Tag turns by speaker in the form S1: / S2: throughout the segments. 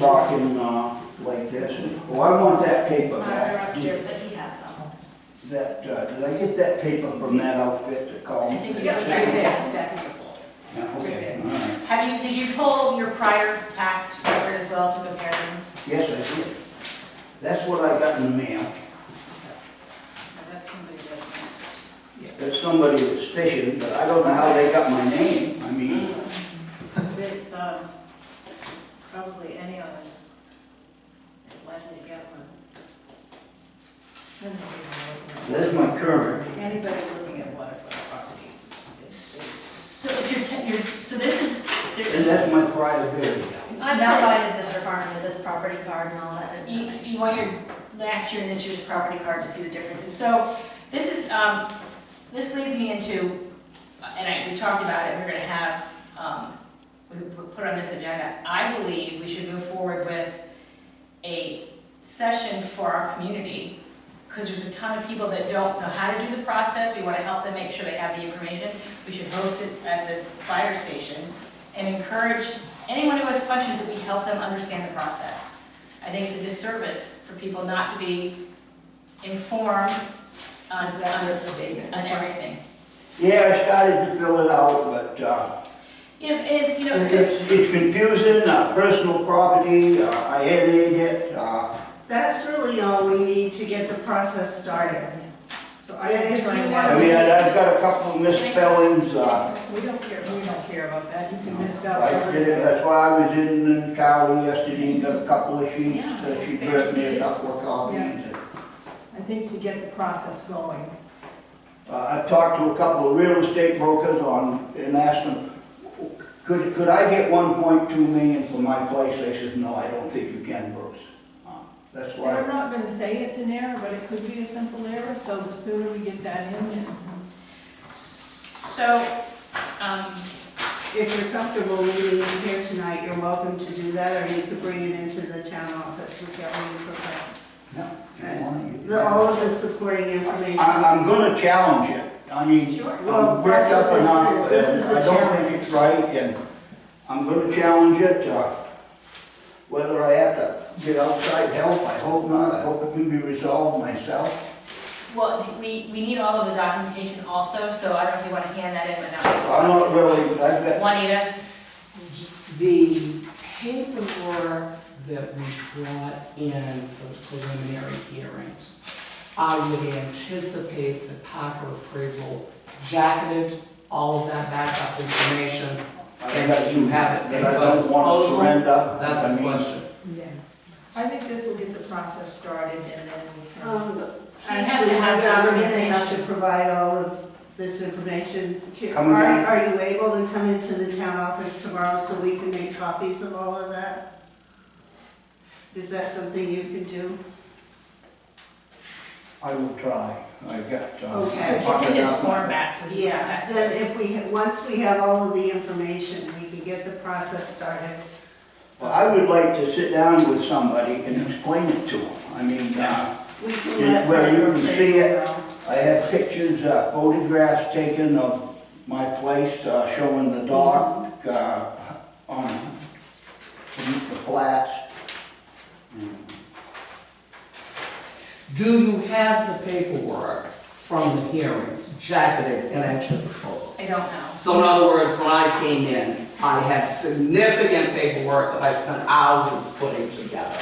S1: talking, uh, like this, oh, I want that paper
S2: Uh, They're
S1: back.
S2: upstairs, but he has them.
S1: That, uh, did I get that paper from that outfit to call?
S2: I
S1: me?
S2: think you
S3: Yeah,
S2: put
S3: right
S2: that
S3: there, it's back in your folder.
S1: Yeah, okay, all right.
S2: Have you, did you pull your prior tax record as well to compare them?
S1: Yes, I did. That's what I got in the mail.
S3: I got somebody that wants-
S1: There's somebody at the station, but I don't know how they got my name, I mean,
S3: that, um, Probably any of us is likely to get one.
S1: that's my current.
S3: Anybody looking at waterfront property, it's,
S2: So if you're, te- you're, so this is,
S1: And that's my private area.
S2: I provided Mr. Farman with this property card and all that. You, you want your last year and this year's property card to see the differences. So this is, um, this leads me into, and I, we talked about it, we're gonna have, um, we we put on this agenda. I believe we should move forward with a session for our community, because there's a ton of people that don't know how to do the process. We wanna help them make sure they have the information. We should host it at the fire station and encourage anyone who has questions that we help them understand the process. I think it's a disservice for people not to be informed on, on everything.
S1: Yeah, I started to fill it out, but, uh,
S2: You know, it's, you know,
S1: it's,
S2: so,
S1: it's confusing, uh, personal property, uh, I edited it, uh,
S4: That's really all we need to get the process started.
S3: so I can
S4: If
S3: try
S4: you
S3: that.
S1: I mean, I- I've got a couple of misspellings, uh,
S3: We don't care, we don't care about that, you can miss out
S1: I did-
S3: whatever.
S1: that's why I was in Cali yesterday, and got a couple of sheets,
S2: Yeah,
S1: that she brought me a
S2: conspiracies.
S1: couple of copies.
S3: Yeah. I think to get the process going,
S1: Uh, I've talked to a couple of real estate brokers on, and asked them, could, could I get one point two million for my place? They said, no, I don't think you can, Bruce. Uh, That's
S3: And I'm
S1: why,
S3: not gonna say it's an error, but it could be a simple error, so the sooner we get that in, then.
S2: so,
S1: uh,
S2: um,
S4: If you're comfortable leaving it here tonight, you're welcome to do that, or you could bring it into the town office, whichever you prefer.
S1: no, if you want, you can
S4: The, all of the supporting information.
S1: I, I'm gonna challenge it, I mean.
S2: Sure.
S1: I'm
S4: Well,
S1: worked
S4: that's what
S1: up
S4: this
S1: enough,
S4: is. This is
S1: and
S4: a
S1: uh, I don't think it's right, and I'm gonna challenge it, uh, whether I have to get outside help, I hope not, I hope it can be resolved myself.
S2: well, we, we need all of the documentation also, so I don't know if you wanna hand that in, but not.
S1: I'm not really, I've got
S2: Juanita,
S5: The paperwork that we brought in for the preliminary hearings, I would anticipate the Parker appraisal jacketed all of that backup information, and you have it
S1: But
S5: at
S1: I
S5: your
S1: don't want to
S5: disposal.
S1: surrender.
S5: That's
S1: I
S5: the
S1: mean,
S5: question.
S3: I think this will get the process started and then we can.
S4: Um,
S2: She has
S4: actually,
S2: to have
S4: we're gonna- we're gonna have
S2: documentation.
S4: to provide all of this information. Can-
S1: Come
S4: Are,
S1: again?
S4: are you able to come into the town office tomorrow so we can make copies of all of that? Is that something you can do?
S1: I will try. I got. uh,
S4: Okay.
S2: give him
S1: pocket
S2: his
S1: out.
S2: form back, so he's.
S4: Yeah, then if we, ha- once we have all of the information, we can get the process started.
S1: Well, I would like to sit down with somebody and explain it to them. I mean, uh,
S4: We can
S1: Yeah,
S4: let.
S1: well, you
S4: her
S1: can
S4: appraise
S1: see it.
S4: all.
S1: I have pictures, uh, photographs taken of my place, uh, showing the dog, uh, on, to meet the flats.
S5: Do you have the paperwork from the hearings jacketed and at your disposal?
S2: I don't know.
S5: So in other words, when I came in, I had significant paperwork that I spent hours putting together.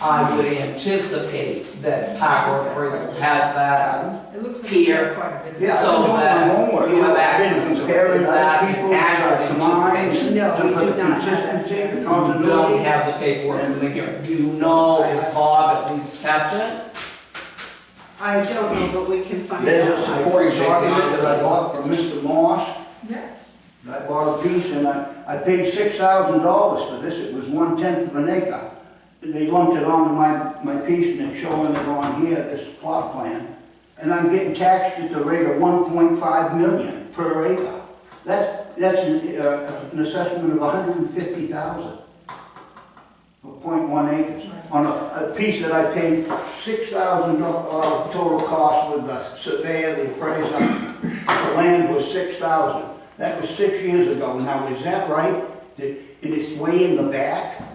S5: I would anticipate that Power Appraisal has that.
S3: It looks like
S5: Here.
S3: we have quite a bit.
S1: Yeah, I've
S5: So
S1: been doing my
S5: that
S1: homework.
S5: you have
S1: I've been
S5: access to it.
S1: comparing
S5: Is
S1: other
S5: that an
S1: people's, uh,
S5: accurate
S1: to mine,
S5: anticipation?
S4: No,
S1: to
S4: we
S1: put
S4: do
S1: the
S4: not have that.
S1: Consistency, the
S5: You don't
S1: continuity.
S5: have the paperwork from the hearing. Do you know if Bob at least kept it?
S4: I don't know, but we can find
S1: There's a
S4: out.
S5: I
S1: support
S5: appreciate the
S1: document that I
S5: honesty.
S1: bought from Mr. Moss.
S3: Yeah,
S1: I bought a piece and I, I paid six thousand dollars for this, it was one tenth of an acre. And they lumped it onto my, my piece and it's showing it on here, this plot plan. And I'm getting taxed at the rate of one point five million per acre. That's, that's an, uh, an assessment of hundred and fifty thousand for point one acres. On a, a piece that I paid six thousand dollars total cost with the surveyor, the appraiser, the land was six thousand. That was six years ago, now is that right? That- And it's way in the back?